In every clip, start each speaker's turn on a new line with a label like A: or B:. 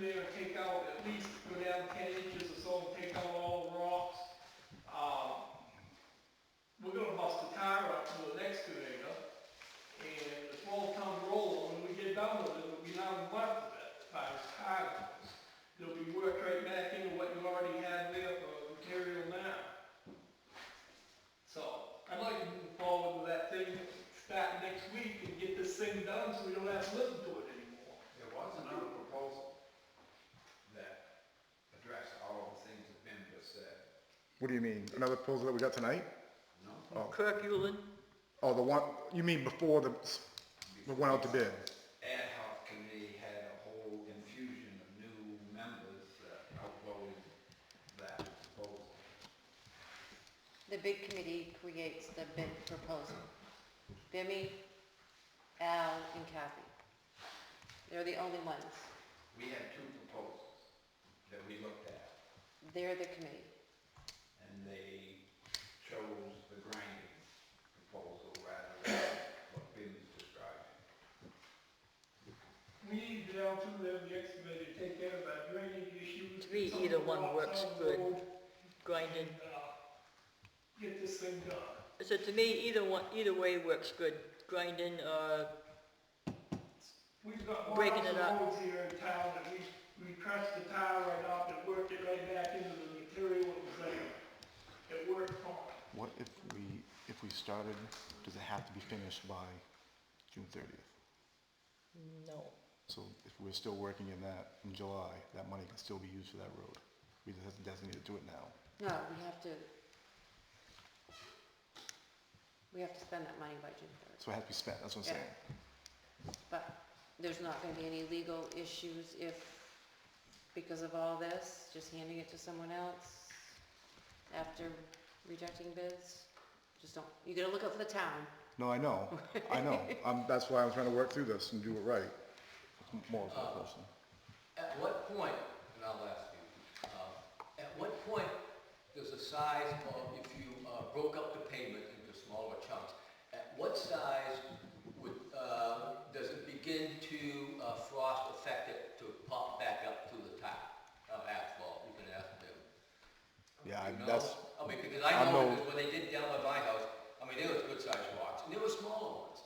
A: there and take out, at least go down ten inches or so and take out all the rocks. Um, we're gonna bust the tire out with an excavator, and the small town roller, when we get done with it, it'll be not left of it by the tire. goes. There'll be work right back into what you already had there for material now. So, I'd like to move forward with that thing, start next week and get this thing done so we don't have to listen to it anymore.
B: There was another proposal that addressed all of the things that Ben just said.
C: What do you mean? Another proposal that we got tonight?
B: No?
D: Kirk Euland,
C: Oh, the one, you mean before the, the one out to bid?
B: Ad hoc committee had a whole infusion of new members that outvoted that proposal.
E: The bid committee creates the bid proposal. Bimmy, Al, and Kathy. They're the only ones.
B: We had two proposals that we looked at,
E: They're the committee.
B: and they chose the grinding proposal rather than what Ben was describing.
A: We need to down to the excavator, to take care of our drainage issues.
D: To me, either one works good. grinding.
A: And, uh, Get this thing done.
D: So to me, either one, either way works good, grinding uh, or,
A: We've got
D: Breaking
A: lots
D: it
A: of
D: up.
A: roads here in town that we, we crushed the tile right off and worked it right back into the material it was there. It worked fine.
F: What if we, if we started, does it have to be finished by June thirtieth?
D: no.
F: So if we're still working in that in July, that money can still be used for that road. We just have to designate to do it now.
E: No, we have to, we have to spend that money by June third.
F: So it has to be spent, that's what I'm saying.
E: But there's not gonna be any legal issues if, because of all this, just handing it to someone else after rejecting bids? Just don't, you gotta look out for the town.
C: No, I know, I know. Um, that's why I'm trying to work through this and do it right.
F: It's More of a question.
G: At what point, and I'll ask you, um, at what point does the size of, if you uh, broke up the payment into smaller chunks, at what size would, uh, does it begin to uh, frost affect it to pop back up to the top of asphalt? You can ask them.
C: Yeah,
G: You
C: I-
G: know?
C: that's,
G: I mean, because I
C: I
G: know
C: know-
G: because when they did down by my house, I mean, there was good sized rocks, and there were smaller ones,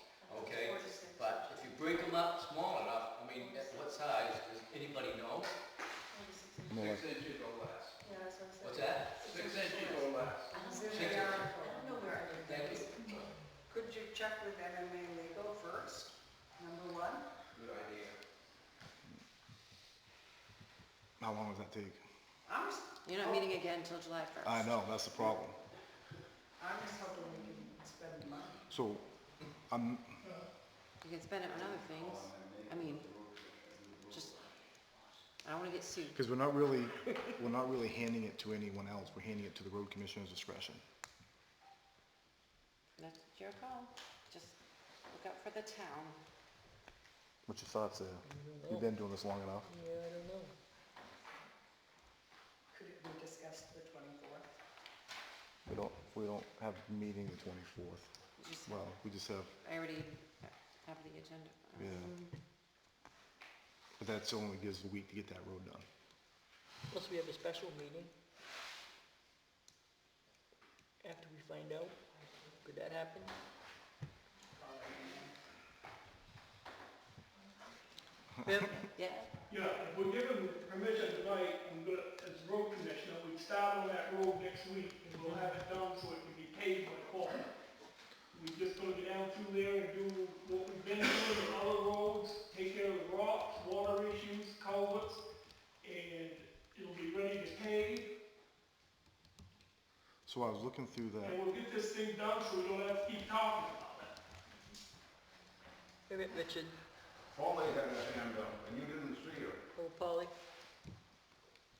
G: okay? But if you break them up small enough, I mean, at what size, does anybody know?
F: more like,
B: Six inches or less.
G: What's that?
B: Six inches or less.
G: Six inches. Thank you.
H: Could you check with MMA Legal first, number one?
B: Good idea.
F: how long does that take?
H: I'm just,
E: You're not meeting again until July first.
F: I know, that's the problem.
H: I'm just hoping we can spend the money.
F: So, I'm,
E: You can spend it on other things. I mean, just, I don't wanna get sued.
F: because we're not really, we're not really handing it to anyone else. We're handing it to the road commissioner's discretion.
E: That's your call. Just look out for the town.
F: What's your thoughts there? You've been doing this long enough.
D: Yeah, I don't know.
H: Could it be discussed the twenty-fourth?
F: We don't, we don't have a meeting the twenty-fourth.
E: Just,
F: Well, we just have,
E: I already have the agenda.
F: yeah. But that still only gives a week to get that road done.
D: Plus, we have a special meeting. After we find out, could that happen? Bim,
E: Yeah,
A: Yeah, if we're given permission tonight, I'm gonna, as road commissioner, we start on that road next week, and we'll have it done so it can be paved by fall. We just gonna get down through there and do what we've been doing on other roads, take care of rocks, water issues, culverts, and it'll be ready to pave,
F: So I was looking through
A: and
F: that,
A: we'll get this thing done so we don't have to keep talking about it.
D: wait a minute, Richard,
B: Foley had her hand up, and you didn't see her.
D: oh, Polly,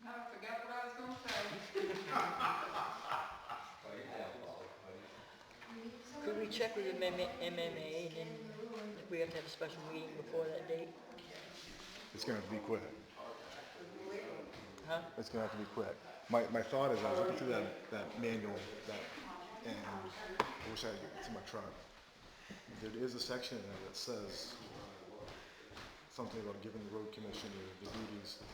H: No, I forgot what I was gonna say.
B: Well, you have, Foley, but
D: could we check with the MMA, MMA and then if we have to have a special meeting before that date?
F: it's gonna have to be quick.
D: Huh?
F: It's gonna have to be quick. My, my thought is, I was looking through that, that manual, that, and I wish I had it to my truck. There is a section in there that says something about giving the road commissioner the duties,